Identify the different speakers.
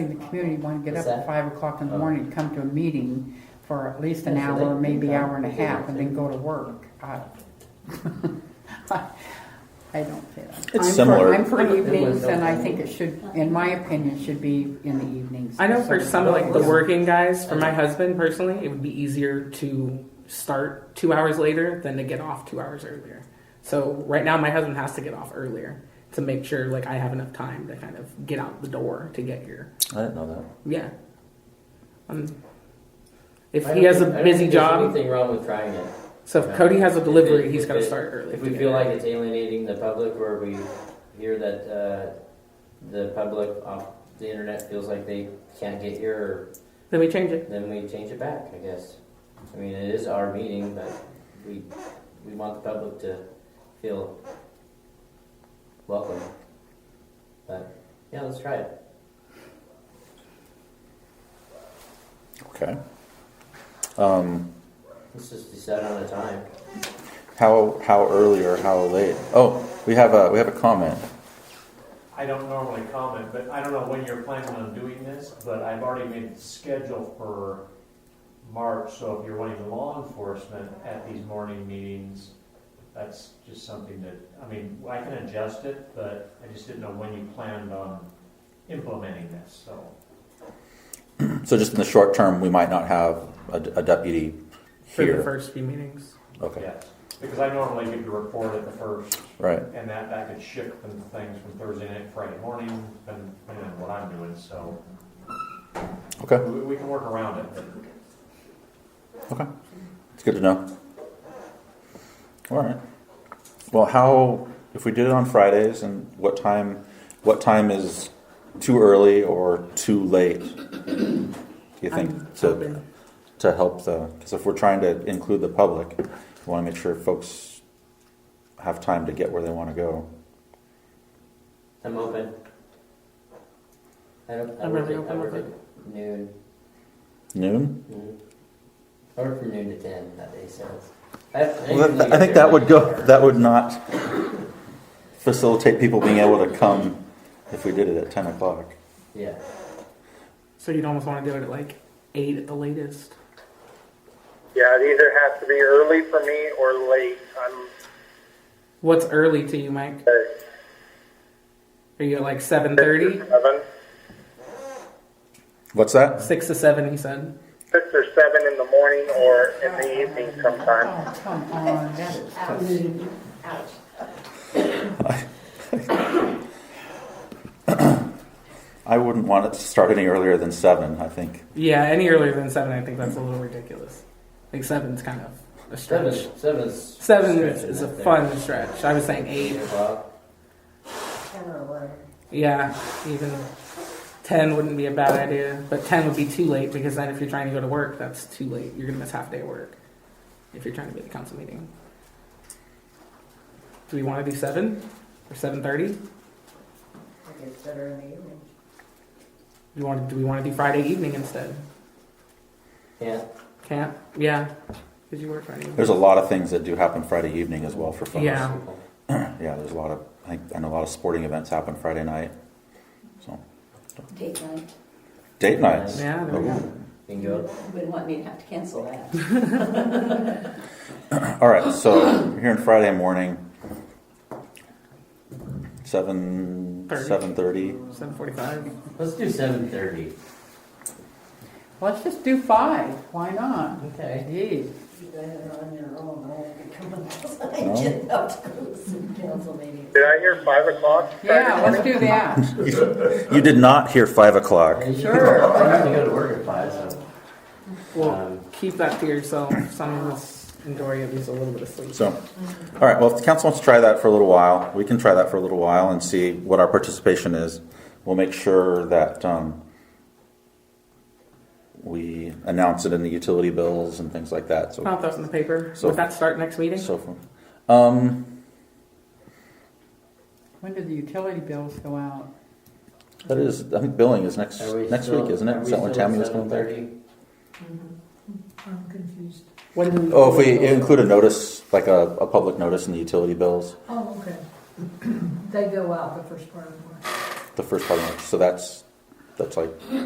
Speaker 1: The community want to get
Speaker 2: What's
Speaker 1: up at
Speaker 2: that?
Speaker 1: five o'clock in the
Speaker 2: Oh.
Speaker 1: morning, come to a meeting for at least an
Speaker 2: Yeah, so they
Speaker 1: hour,
Speaker 2: can
Speaker 1: maybe
Speaker 2: come
Speaker 1: hour and a
Speaker 2: and do
Speaker 1: half, and then
Speaker 2: everything.
Speaker 1: go to work. I I don't feel. I'm
Speaker 3: It's
Speaker 1: for-
Speaker 3: similar.
Speaker 1: I'm for
Speaker 4: It was
Speaker 1: evenings, and I
Speaker 2: okay.
Speaker 1: think it should, in my opinion, should be in the evenings.
Speaker 4: I know
Speaker 1: So-
Speaker 4: for some like the working guys, for my husband personally, it would be easier to start two hours later than to get off two hours earlier. So right now, my husband has to get off earlier to make sure like I have enough time to kind of get out the door to get here.
Speaker 3: I didn't know that.
Speaker 4: Yeah. Um, if
Speaker 2: I
Speaker 4: he
Speaker 2: don't
Speaker 4: has a
Speaker 2: think- I don't
Speaker 4: busy
Speaker 2: think there's
Speaker 4: job,
Speaker 2: Anything wrong with trying it?
Speaker 4: so if Cody has a
Speaker 2: If
Speaker 4: delivery,
Speaker 2: it-
Speaker 4: he's
Speaker 2: if
Speaker 4: got to
Speaker 2: it-
Speaker 4: start early.
Speaker 2: If
Speaker 4: to
Speaker 2: we
Speaker 4: get
Speaker 2: feel
Speaker 4: here.
Speaker 2: like it's alienating the public, or we hear that uh, the public off the internet feels like they can't get here,
Speaker 4: then we change it.
Speaker 2: then we change it back. I guess. I mean, it is our meeting, but we we want the public to feel welcome. But yeah, let's try it.
Speaker 3: Okay. Um,
Speaker 2: Let's just decide on a time.
Speaker 3: how how early or how late? Oh, we have a we have a comment.
Speaker 5: I don't normally comment, but I don't know when you're planning on doing this, but I've already made the schedule for March, so if you're wanting law enforcement at these morning meetings, that's just something that, I mean, I can adjust it, but I just didn't know when you planned on implementing this, so.
Speaker 3: So just in the short term, we might not have a, a deputy
Speaker 4: For the
Speaker 3: here.
Speaker 4: first few meetings.
Speaker 3: Okay.
Speaker 5: Yes, because I normally give the report at the first,
Speaker 3: Right.
Speaker 5: and that, that could shift from things from Thursday night, to Friday morning, and, and what I'm doing, so
Speaker 3: Okay.
Speaker 5: we, we can work around it, but
Speaker 3: Okay. It's good to know. All right. Well, how if we did it on Fridays and what time? What time is too early or too late? Do you think
Speaker 4: I'm
Speaker 3: to
Speaker 4: open.
Speaker 3: to help the because if we're trying to include the public, we want to make sure folks have time to get where they want to go.
Speaker 2: I'm open. I don't. I
Speaker 4: I'm
Speaker 2: work
Speaker 4: really
Speaker 2: at- I
Speaker 4: open
Speaker 2: work
Speaker 4: with
Speaker 2: at Noon.
Speaker 3: Noon.
Speaker 2: Mhm. I work from noon to ten that day, so. it's- I, I
Speaker 3: Well,
Speaker 2: usually
Speaker 3: that, I think
Speaker 2: get
Speaker 3: that
Speaker 2: there
Speaker 3: would
Speaker 2: like
Speaker 3: go.
Speaker 2: an hour.
Speaker 3: That would not facilitate people being able to come if we did it at ten o'clock.
Speaker 2: Yeah,
Speaker 4: So you'd almost want to do it at like eight at the latest.
Speaker 6: Yeah, it either has to be early for me or late. I'm
Speaker 4: What's early to you, Mike?
Speaker 6: uh,
Speaker 4: Are you at like seven thirty?
Speaker 6: six or seven,
Speaker 3: What's that?
Speaker 4: Six to seven, he said.
Speaker 6: six or seven in the morning or in the evening sometime.
Speaker 1: Oh, come on, that is tough.
Speaker 7: Ouch. Ouch.
Speaker 3: I wouldn't want it to start any earlier than seven. I think.
Speaker 4: Yeah, any earlier than seven, I think that's a little ridiculous. Like seven's kind of a
Speaker 2: seven,
Speaker 4: stretch.
Speaker 2: seven's
Speaker 4: Seven is,
Speaker 2: stretching
Speaker 4: is
Speaker 2: it
Speaker 4: a
Speaker 2: there.
Speaker 4: fun stretch. I was saying eight.
Speaker 2: Eight o'clock.
Speaker 7: Ten or eleven.
Speaker 4: Yeah, even ten wouldn't be a bad idea, but ten would be too late because then if you're trying to go to work, that's too late. You're gonna miss half day of work if you're trying to be at the council meeting. Do we want to do seven or seven thirty? Do
Speaker 7: I guess better in the evening.
Speaker 4: we want? Do we want to do Friday evening instead?
Speaker 2: Yeah,
Speaker 4: Can't. Yeah, because you work Friday. evening.
Speaker 3: There's a lot of things that do happen Friday evening as well for folks.
Speaker 4: Yeah.
Speaker 3: Yeah. There's a lot of I think and a lot of sporting events happen Friday night. So
Speaker 8: Date night,
Speaker 3: date nights.
Speaker 4: Yeah, there we
Speaker 3: Ooh.
Speaker 4: go.
Speaker 2: you can go.
Speaker 8: you wouldn't want me to have to cancel that.
Speaker 3: All right, so we're here on Friday morning, seven
Speaker 4: Thirty.
Speaker 3: seven thirty.
Speaker 4: Seven forty-five.
Speaker 2: Let's do seven thirty.
Speaker 1: Let's just do five, why not?
Speaker 2: Okay.
Speaker 1: Geez.
Speaker 7: You guys are on your own, I have to come up.
Speaker 3: No?
Speaker 7: I get up to the city council meeting.
Speaker 6: Did I hear five o'clock? Friday
Speaker 1: Yeah,
Speaker 6: morning?
Speaker 1: let's do that,
Speaker 3: You did not hear five o'clock.
Speaker 1: Sure.
Speaker 2: I have to go to work at five, so.
Speaker 4: Well,
Speaker 2: Um,
Speaker 4: keep that to yourself. Some of us enjoy at least a little bit of sleep.
Speaker 3: So, all right, well, if the council wants to try that for a little while, we can try that for a little while and see what our participation is. We'll make sure that um, we announce it in the utility bills and things like that. So,
Speaker 4: I'll throw it in the paper.
Speaker 3: So-
Speaker 4: Would that start next meeting?
Speaker 3: so forth. Um,
Speaker 1: when do the utility bills go out?
Speaker 3: that is, I think billing is next
Speaker 2: are we
Speaker 3: next
Speaker 2: still-
Speaker 3: week, isn't it?
Speaker 2: are
Speaker 3: Is
Speaker 2: we
Speaker 3: that when
Speaker 2: still at
Speaker 3: Tammy was coming back?
Speaker 2: 7:30?
Speaker 7: I'm confused.
Speaker 4: when do we-
Speaker 3: Oh, if we include a notice, like a, a public notice in the utility bills,
Speaker 7: Oh, okay. They go out the first part of March.
Speaker 3: the first part of it, so that's, that's like